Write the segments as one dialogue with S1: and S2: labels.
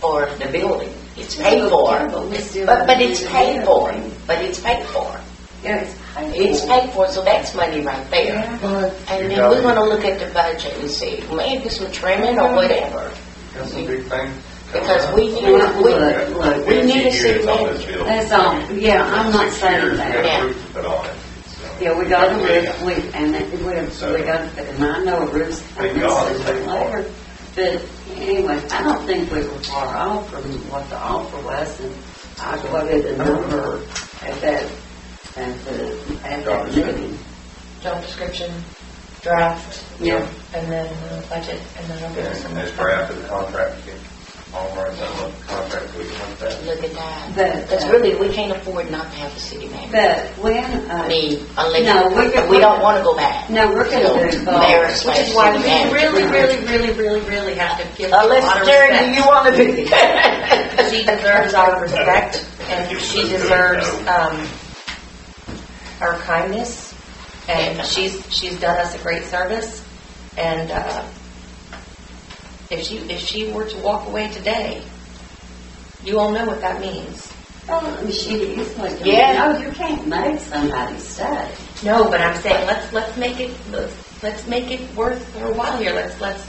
S1: for the building. It's paid for.
S2: Yeah, but we still
S1: But, but it's
S2: need to
S1: paid
S2: do
S1: for.
S2: it.
S1: But it's paid for.
S2: Yeah, it's paid for.
S1: It's paid for, so that's money right there.
S2: Yeah.
S3: But
S1: And
S3: you
S1: then we're
S3: gotta-
S1: gonna look at the budget and see, maybe some trimming or whatever.
S3: That's a big thing.
S1: Because we need,
S2: Look,
S1: we,
S2: look, look.
S1: we need a city
S4: Years on
S1: manager.
S4: this building.
S2: That's all, yeah, I'm not
S4: Six
S2: saying
S4: years, We
S2: that.
S4: got
S1: Yeah.
S4: proof to put on it. so.
S2: Yeah, we got a
S4: Yeah.
S2: roof, we, and it- we, we got, and I know a roof's
S4: Thank
S2: coming
S4: God.
S2: sooner or later. But anyway, I don't think we were far off from what the offer was, and I quoted the number at that, at the, at that meeting.
S5: job description, draft,
S2: Yeah,
S5: and then uh, budget, and then I'll give us
S4: Yeah,
S5: some.
S4: And this draft of the contract, you can all right, that one contract, we can look at.
S1: look at that.
S2: but,
S1: Because
S2: uh,
S1: really, we can't afford not to have a city manager.
S2: but when,
S1: I
S2: uh,
S1: mean,
S2: No, we
S1: unless,
S2: could-
S1: we don't wanna go back.
S2: no, we're gonna do it.
S1: Mayor
S2: both.
S1: slash
S5: Which is
S1: city
S5: why we
S1: manager.
S5: really, really, really, really, really have to give her a lot
S1: Unless,
S5: of
S1: Jerry, do
S5: respect.
S1: you wanna be?
S5: She deserves our respect, and she deserves, um, our kindness, and she's, she's done us a great service, and, uh, if she, if she were to walk away today, you all know what that means.
S2: Oh, she is like,
S5: Yeah.
S2: no, you can't make somebody stay.
S5: No, but I'm saying, let's, let's make it, let's let's make it worth her while here, let's, let's.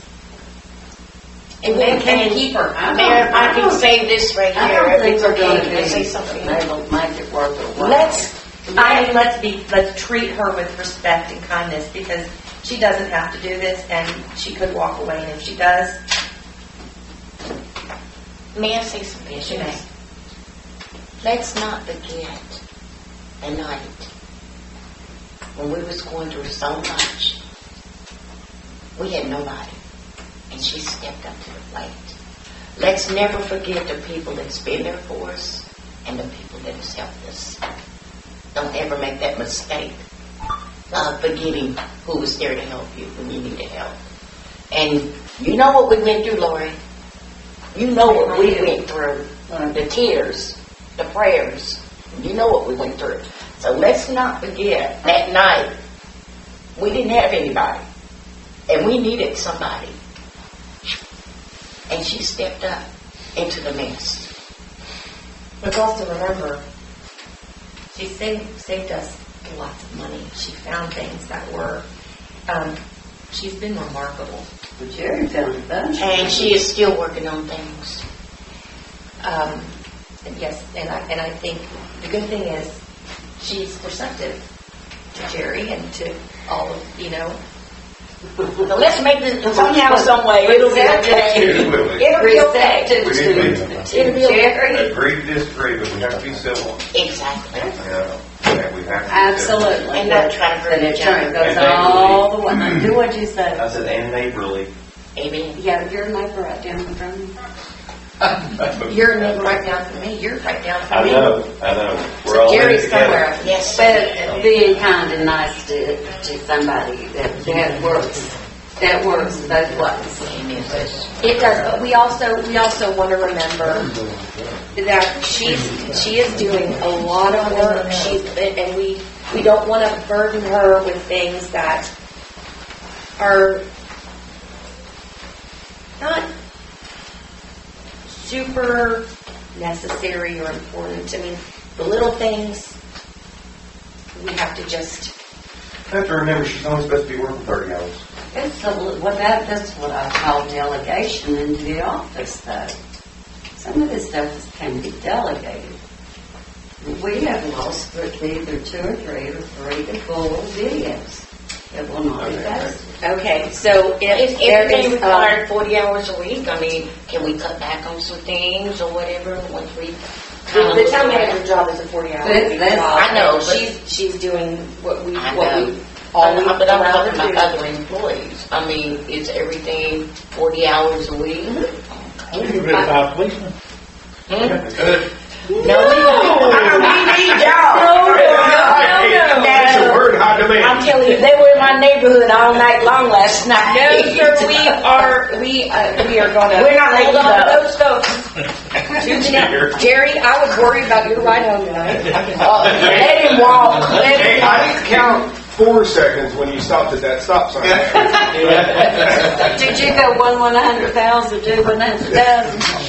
S1: And
S5: we
S1: then
S5: can
S1: can-
S5: keep her.
S2: I don't-
S1: Mayor, if I
S2: don't-
S1: can say this right
S2: I
S1: here,
S2: don't think
S1: it's
S2: we're gonna
S1: okay,
S2: be
S1: can I say something?
S2: able to make it worth their while.
S5: Let's, I mean, let's be, let's treat her with respect and kindness, because she doesn't have to do this, and she could walk away, and if she does,
S1: May I say something?
S5: she may.
S1: Let's not forget the night when we was going through so much. We had nobody, and she stepped up to the plate. Let's never forget the people that's been there for us and the people that has helped us. Don't ever make that mistake of forgetting who was there to help you when you needed help. And you know what we went through, Lori. You know what we went through Mm,
S2: Right.
S1: the tears, the prayers. You know what we went through. So let's not forget that night we didn't have anybody and we needed somebody. And she stepped up into the mess.
S5: Let's also remember, she saved, saved us lots of money, she found things that were, um, she's been remarkable.
S2: But Jerry found a bunch.
S1: And she is still working on things.
S5: Um, and yes, and I, and I think the good thing is she's receptive to Jerry and to all of, you know.
S1: So let's make this somehow, some way. It'll be okay.
S4: Here's what we-
S1: It'll be okay.
S4: We didn't
S1: It'll be okay.
S4: agree to disagree, but we have to be civil,
S1: Exactly.
S4: you know, and we have to. be civil.
S2: Absolutely.
S1: And not trying to hurt
S2: But it
S1: each other.
S2: goes all the way, Now, do what you
S4: I
S2: say.
S4: said, and neighborly.
S1: Amen.
S2: Yeah, you're a neighbor right down the road.
S5: You're right down from me, you're right down
S4: I
S5: from me.
S4: know, I know. We're all in it
S5: Jerry's
S4: together.
S5: somewhere.
S1: Yes.
S2: But being kind and nice to, to somebody, that, that works, that works both ways.
S1: Amen.
S5: It does, but we also, we also want to remember that she's, she is doing a lot of work. She's, and we, we don't want to burden her with things that are not super necessary or important. I mean, the little things, we have to just
S4: Have to remember, she's only supposed to be working thirty hours.
S2: It's a, li- well, that, that's what I call delegation into the office, though. Some of this stuff is- can be delegated. We have lost th- either two or three or three to four videos that will not be posted.
S5: Okay, so if
S1: If
S5: there
S1: everything
S5: is, um,
S1: required 40 hours a week, I mean, can we cut back on some things or whatever once we?
S5: the the town manager job is a forty hour
S2: But-
S5: week
S2: but-
S5: job.
S1: I know,
S5: and
S1: but-
S5: She's, she's doing what we,
S1: I
S5: what
S1: know.
S5: we, all we
S1: But I'm
S5: allow her
S1: talking
S5: to
S1: about
S5: do.
S1: other employees. I mean, is everything 40 hours a week?
S3: Get rid of five policemen.
S1: Hmm?
S4: Good.
S1: No, we need y'all.
S4: That's a word,
S1: I'm
S4: high demand.
S1: telling you, they were in my neighborhood all night long last night.
S5: No, sir, we are, we, uh, we are gonna.
S1: We're not letting
S5: Hold
S1: you
S5: on
S1: go.
S5: to those folks. Two
S4: Sure.
S5: minutes. Jerry, I was worried about your ride home tonight.
S1: Uh, Let him walk, let him
S4: Hey,
S1: walk.
S4: I didn't count four seconds when you stopped at that stop sign.
S2: Did you go one one hundred thousand, do one hundred thousand?